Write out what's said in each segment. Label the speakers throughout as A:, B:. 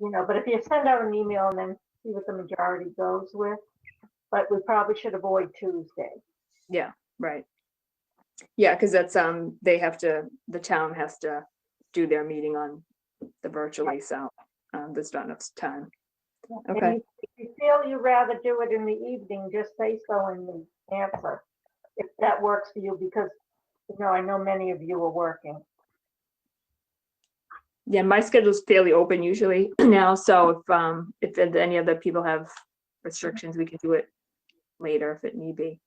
A: you know, but if you send out an email and then see what the majority goes with, but we probably should avoid Tuesday.
B: Right. Yeah, because that's, um, they have to, the town has to do their meeting on the virtually, so, um, there's not enough time.
A: And
B: Okay,
A: you- If you feel you'd rather do it in the evening, just say so in the answer, if that works for you, because, you know, I know many of you are working.
B: yeah, my schedule's fairly open usually now, so if, um, if there's any other people have restrictions, we can do it later if it need be.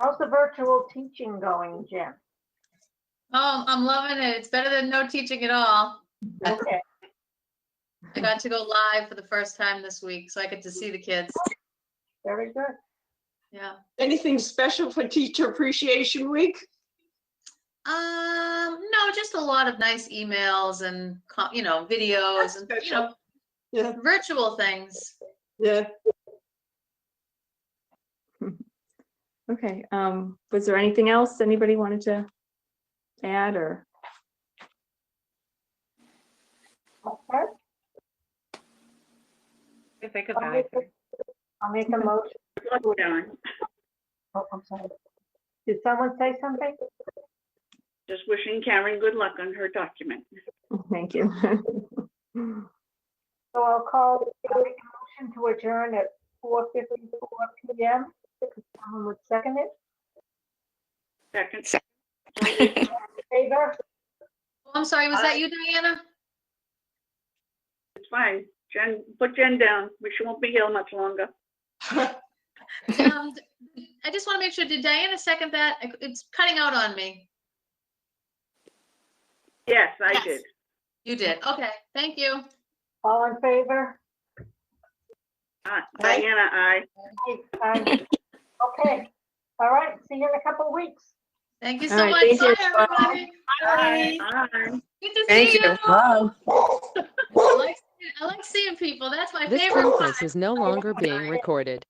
A: How's the virtual teaching going, Jim?
C: Oh, I'm loving it. It's better than no teaching at all.
A: Okay,
C: I got to go live for the first time this week, so I get to see the kids.
A: very good.
C: Yeah.
D: Anything special for Teacher Appreciation Week?
C: Um, no, just a lot of nice emails and, co- you know, videos and, you know,
D: Yeah,
C: virtual things.
D: yeah.
B: Okay, um, was there anything else anybody wanted to add or,
A: Okay,
E: If I could
A: I'll
E: buy
A: make a- I'll make a motion.
E: it down,
A: Oh, I'm sorry. Did someone say something?
E: just wishing Karen good luck on her document.
B: thank you.
A: So I'll call, I'll make a motion to adjourn at 4:54 PM. Someone would second it,
E: Second,
A: favor?
C: Oh, I'm sorry, was that you, Diana?
E: it's fine. Jen, put Jen down. She won't be here much longer.
C: Um, I just want to make sure, did Diana second that? I- It's cutting out on me.
E: Yes, I
C: Yes.
E: did.
C: You did. Okay, thank you.
A: All in favor?
E: Uh, Diana, I.
A: Aye, aye. Okay, all right, see you in a couple of weeks.
C: Thank you
B: All
C: so
B: right, thank
C: much. Bye,
B: you.
C: everybody.
E: Aye. Aye.
C: Good to
F: Thank
C: see
F: you.
C: you. I like- I like seeing people. That's my
G: This
C: favorite part.
G: conference is no longer being recorded.